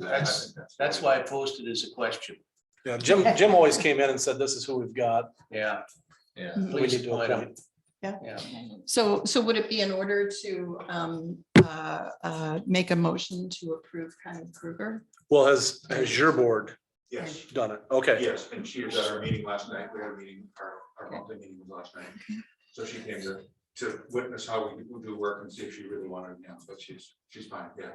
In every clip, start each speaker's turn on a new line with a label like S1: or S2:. S1: that. I
S2: That's-
S1: think
S2: That's why I posted as a question.
S3: You know, Jim, Jim always came in and said, this is who we've got.
S2: Yeah,
S1: Yeah.
S3: We
S2: please
S3: need to
S2: point 'em.
S3: appoint.
S4: So, so would it be in order to um, uh, uh, make a motion to approve Connie Krueger?
S3: Well, has, has your board
S1: Yes,
S3: done it? Okay.
S1: yes, and she was at our meeting last night, we had a meeting, our, our monthly meeting was last night. So she came to, to witness how we do work and see if she really wanted, to, but she's, she's fine, yeah.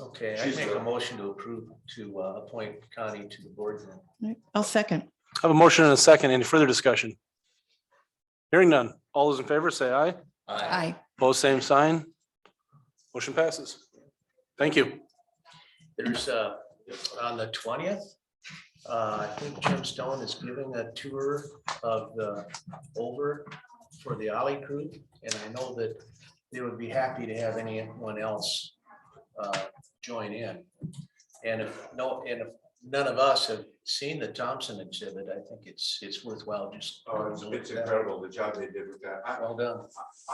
S2: Okay, I
S1: She's
S2: make a
S1: the-
S2: motion to approve, to uh, appoint Connie to the board then.
S4: Right, I'll second.
S3: I Have a motion and a second. Any further discussion? Hearing none. All those in favor say aye.
S4: Aye.
S3: Both same sign. Motion passes. Thank you.
S2: There's uh, on the twentieth, uh, I think Jim Stone is giving a tour of the over for the Ollie Crew. And I know that they would be happy to have anyone else uh, join in. And if no, and if none of us have seen the Thompson exhibit, I think it's, it's worthwhile just.
S1: Oh, it's, it's incredible, the job they did with that. I,
S2: Well done.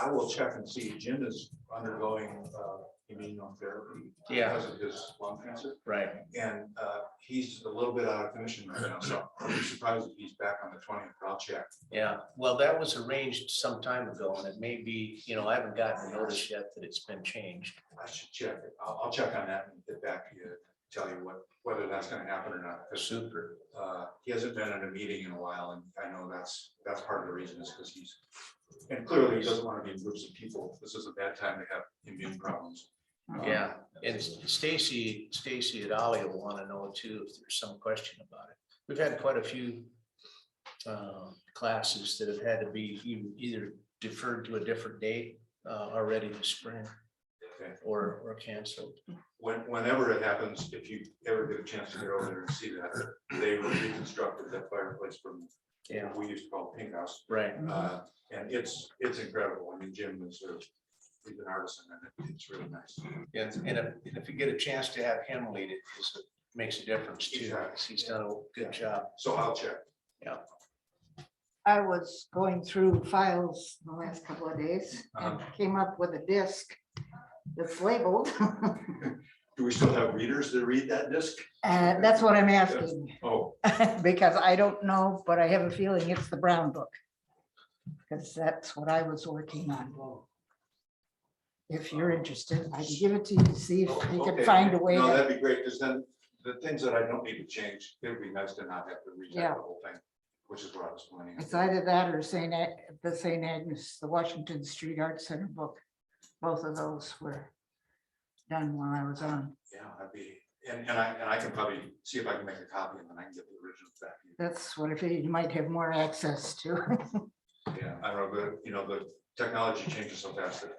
S1: I will check and see, Jim is undergoing uh, immunotherapy.
S2: Yeah.
S1: Because of his lung cancer,
S2: Right.
S1: and uh, he's a little bit out of commission right now, so I'm surprised if he's back on the twentieth, but I'll check.
S2: Yeah, well, that was arranged some time ago and it may be, you know, I haven't gotten notice yet that it's been changed.
S1: I should check, it. I'll, I'll check on that and get back to you, tell you what, whether that's gonna happen or not. 'cause,
S2: Super.
S1: uh, He hasn't been at a meeting in a while, and I know that's, that's part of the reason is because he's, and clearly he doesn't want to be in groups of people, this is a bad time to have immune problems. Um,
S2: Yeah, and Stacy, Stacy and Ollie will want to know too if there's some question about it. We've had quite a few um, classes that have had to be e- either deferred to a different date uh, already this spring
S1: Okay.
S2: or, or canceled.
S1: when, whenever it happens, if you ever get a chance to go over there and see that, they reconstructed that fireplace from,
S2: Yeah,
S1: we used to call it Pink House.
S2: right.
S1: Uh, And it's, it's incredible. I mean, Jim is a, he's an artisan and it- it's really nice.
S2: And and if, and if you get a chance to have him lead it, it's- it makes a difference too. 'cause He's done a good job.
S1: So I'll check.
S5: I was going through files the last couple of days
S1: Uh-huh.
S5: and came up with a disc that's labeled.
S1: Do we still have readers that read that disc?
S5: And that's what I'm asking,
S1: Oh,
S5: because I don't know, but I have a feeling it's the Brown Book. Because that's what I was working on. If you're interested, I can give it to you, to see if you
S1: oh, okay.
S5: can find a way.
S1: No,
S5: to-
S1: that'd be great because then the things that I don't need to change, it'd be nice to not have to read
S5: Yeah.
S1: the whole thing, which is what I was planning. on
S5: It's
S1: doing.
S5: either that or Saint, Ag- the Saint Agnes, the Washington Street Art Center book. Both of those were done while I was on.
S1: Yeah, I'd be, and, and I, and I can probably see if I can make a copy and then I can get the original back. to you.
S5: That's what I figured you might have more access to.
S1: Yeah, I don't know, but you know, the technology changes so fast that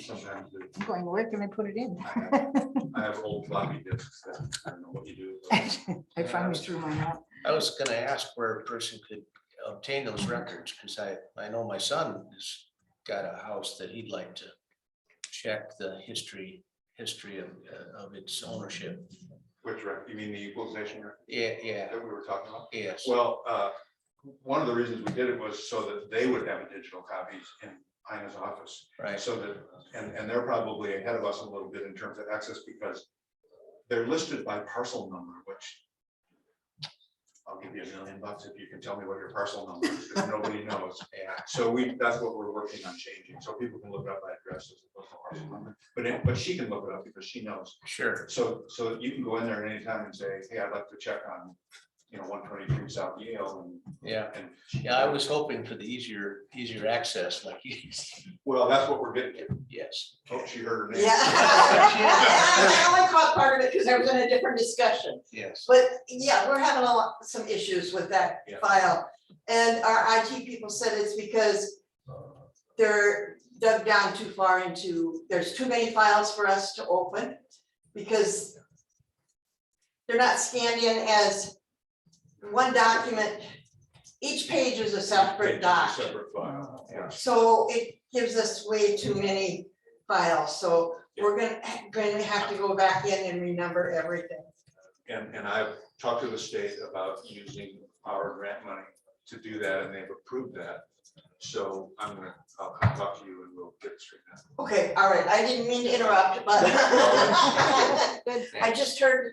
S1: sometimes the-
S5: I'm Going, where can I put it in?
S1: I have- I have old floppy disks that I don't know what you do. with those.
S5: I finally threw mine out.
S2: I was gonna ask where a person could obtain those records, because I, I know my son has got a house that he'd like to check the history, history of, uh, of its ownership.
S1: Which, rec- you mean the equalization rec-
S2: Yeah, yeah,
S1: that we were talking about?
S2: yes,
S1: Well, uh, one of the reasons we did it was so that they would have a digital copies in Ina's office.
S2: right,
S1: So that, and, and they're probably ahead of us a little bit in terms of access because they're listed by parcel number, which I'll give you a million bucks if you can tell me what your parcel number is, because nobody knows.
S2: yeah,
S1: So we, that's what we're working on changing, so people can look it up by address as opposed to parcel number. But, it- but she can look it up because she knows.
S2: sure,
S1: So, so you can go in there at any time and say, hey, I'd like to check on, you know, one twenty-three South Yale
S2: yeah.
S1: and. and
S2: Yeah, I was hoping for the easier, easier access, like, you
S1: Well, that's what we're getting. at.
S2: yes,
S1: Oh, she heard her name.
S6: Yeah. I only caught part of it because I was in a different discussion.
S2: yes,
S6: But yeah, we're having a lot, some issues with that
S1: Yeah.
S6: file. And our IT people said it's because they're dug down too far into, there's too many files for us to open because they're not scanned in as one document. Each page is a separate doc.
S1: Separate file, yeah.
S6: So it gives us way too many files, so we're gonna, gonna have to go back in and renumber everything.
S1: And, and I've talked to the state about using our grant money to do that, and they've approved that. So I'm gonna, I'll come talk to you and we'll get it straightened out.
S6: Okay, all right, I didn't mean to interrupt, but I just heard